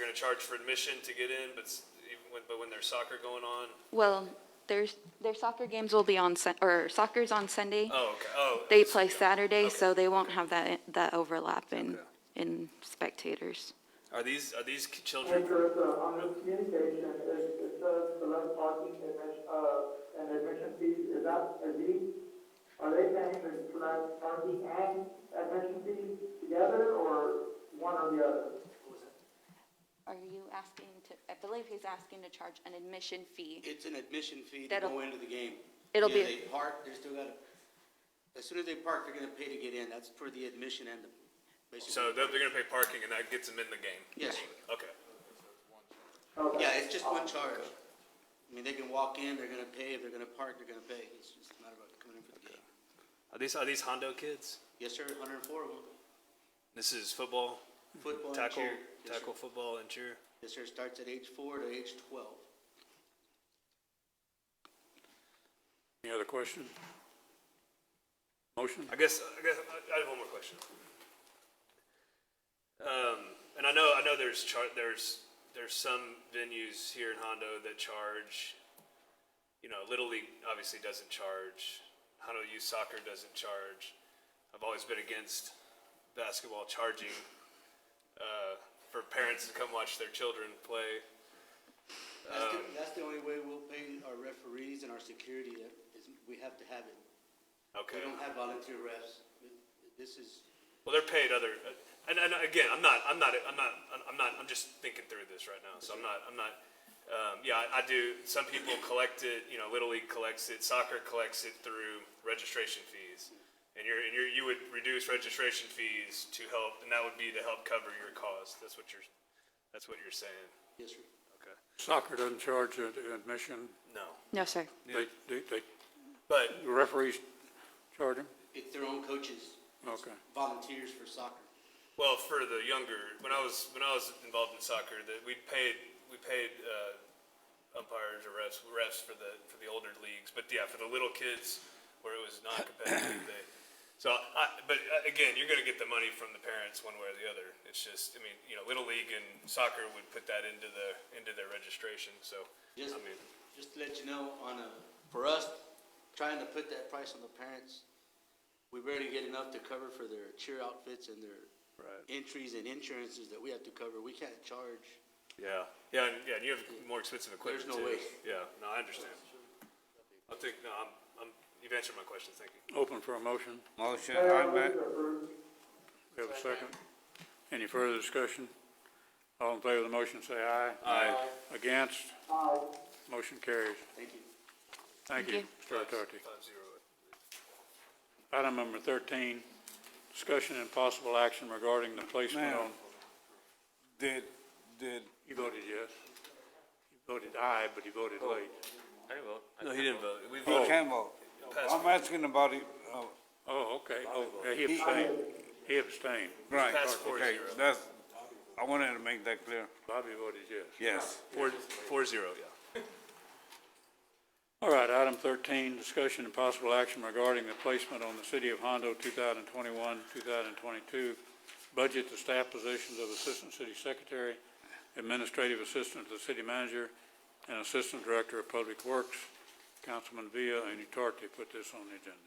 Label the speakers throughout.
Speaker 1: gonna charge for admission to get in, but s- even when, but when there's soccer going on,
Speaker 2: Well, there's, their soccer games will be on, Sun- or soccer's on Sunday.
Speaker 1: oh, okay, oh.
Speaker 2: They
Speaker 1: it's-
Speaker 2: play
Speaker 1: yeah.
Speaker 2: Saturday,
Speaker 1: Okay.
Speaker 2: so they won't have that, that overlap in,
Speaker 1: Okay.
Speaker 2: in spectators.
Speaker 1: Are these, are these ki-
Speaker 3: And
Speaker 1: children,
Speaker 3: there's a, uh, on the communication, it, it says select parking admission, uh, and admission fees, is that, are these, are they paying the select parking and admission fees together, or one or the other?
Speaker 2: Are you asking to, I believe he's asking to charge an admission fee.
Speaker 4: It's an admission fee to
Speaker 2: That'll-
Speaker 4: go into the game.
Speaker 2: it'll be-
Speaker 4: Either they park, they're still gotta, as soon as they park, they're gonna pay to get in. That's for the admission and the,
Speaker 1: so
Speaker 4: basically.
Speaker 1: they're, they're gonna pay parking and that gets them in the game?
Speaker 4: Yes.
Speaker 1: Okay,
Speaker 3: Okay.
Speaker 4: Yeah, it's just one charge. I mean, they can walk in, they're gonna pay. If they're gonna park, they're gonna pay. It's just a matter of coming in for the game.
Speaker 1: are these, are these Hondo kids?
Speaker 4: Yes, sir, hundred and four of them.
Speaker 1: This is football,
Speaker 4: Football and
Speaker 1: tackle,
Speaker 4: cheer. Yes, sir.
Speaker 1: tackle football and cheer?
Speaker 4: Yes, sir, starts at age four to age twelve.
Speaker 5: Any other question? Motion?
Speaker 1: I guess, I guess, I- I have one more question. Um, and I know, I know there's char, there's, there's some venues here in Hondo that charge, you know, Little League obviously doesn't charge, Hondo Youth Soccer doesn't charge. I've always been against basketball charging, uh, for parents to come watch their children play. Uh,
Speaker 4: That's the, that's the only way we'll pay our referees and our security uh, is we have to have it. We
Speaker 1: Okay.
Speaker 4: don't have volunteer refs. This is,
Speaker 1: Well, they're paid other, and, and again, I'm not, I'm not, I'm not, I'm not, I'm just thinking through this right now, so I'm not, I'm not, um, yeah, I, I do, some people collect it, you know, Little League collects it, soccer collects it through registration fees. And you're, and you're, you would reduce registration fees to help, and that would be to help cover your cost, that's what you're, that's what you're saying,
Speaker 4: yes, sir.
Speaker 1: okay?
Speaker 5: Soccer doesn't charge ad- admission.
Speaker 1: No,
Speaker 2: No, sir.
Speaker 5: They, they, they-
Speaker 1: but,
Speaker 5: the referees charge them?
Speaker 4: It's their own coaches,
Speaker 5: Okay.
Speaker 4: volunteers for soccer.
Speaker 1: well, for the younger, when I was, when I was involved in soccer, that we paid, we paid, uh, umpires or refs, refs for the, for the older leagues, but yeah, for the little kids where it was non-competitive, they, so I, but uh, again, you're gonna get the money from the parents one way or the other. It's just, I mean, you know, Little League and soccer would put that into the, into their registration, so,
Speaker 4: Just,
Speaker 1: I mean,
Speaker 4: just to let you know, on a, for us, trying to put that price on the parents, we barely get enough to cover for their cheer outfits and their entries and insurances that we have to cover. We can't charge.
Speaker 1: yeah, yeah, and, yeah, and you have more expensive equipment
Speaker 4: There's
Speaker 1: too.
Speaker 4: no way.
Speaker 1: Yeah, no, I understand. I think, no, I'm, I'm, you've answered my question, thank you.
Speaker 5: Open for a motion.
Speaker 6: Motion,
Speaker 3: Mayor, I
Speaker 6: I
Speaker 3: move
Speaker 6: make,
Speaker 3: to approve.
Speaker 5: We have a second. Any further discussion? All in favor of the motion, say aye. Aye. Against?
Speaker 3: Aye.
Speaker 5: Motion carries.
Speaker 4: Thank you.
Speaker 5: Thank you, Mr. Tardy.
Speaker 1: Five zero.
Speaker 5: Item number thirteen, discussion and possible action regarding the placement
Speaker 6: Ma'am.
Speaker 5: on,
Speaker 6: did, did,
Speaker 5: you voted yes. You voted aye, but you voted late.
Speaker 1: No, he didn't vote. We
Speaker 6: he
Speaker 1: voted.
Speaker 6: can vote. I'm asking about it, uh,
Speaker 5: Oh, okay, oh, yeah, he abstained, he abstained.
Speaker 6: right,
Speaker 1: That's four
Speaker 6: okay,
Speaker 1: zero.
Speaker 6: that's, I wanted to make that clear.
Speaker 5: Bobby voted yes.
Speaker 6: Yes.
Speaker 1: Four, four zero, yeah.
Speaker 5: All right, item thirteen, discussion and possible action regarding the placement on the city of Hondo two thousand twenty-one, two thousand twenty-two budget to staff positions of Assistant City Secretary, Administrative Assistant to the City Manager, and Assistant Director of Public Works. Councilman Villa and Utarte put this on the agenda.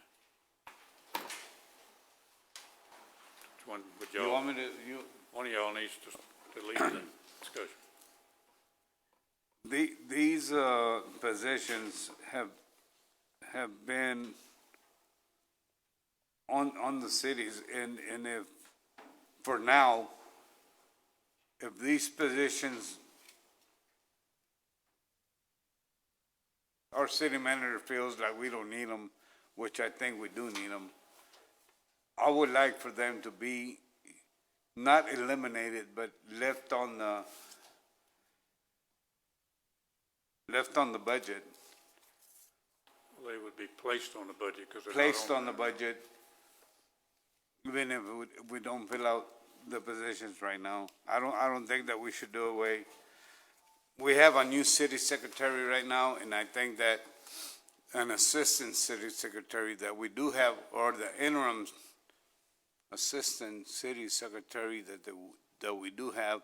Speaker 5: Which one would
Speaker 6: You
Speaker 5: y'all,
Speaker 6: want me to, you,
Speaker 5: one of y'all needs to, to lead the discussion.
Speaker 6: The, these, uh, positions have, have been on, on the cities, and, and if, for now, if these positions, our city manager feels like we don't need them, which I think we do need them, I would like for them to be not eliminated, but left on the, left on the budget,
Speaker 5: They would be placed on the budget because they're not
Speaker 6: placed on the budget, even if we- we don't fill out the positions right now. I don't, I don't think that we should do away. We have a new city secretary right now, and I think that an assistant city secretary that we do have, or the interim assistant city secretary that, the- that we do have,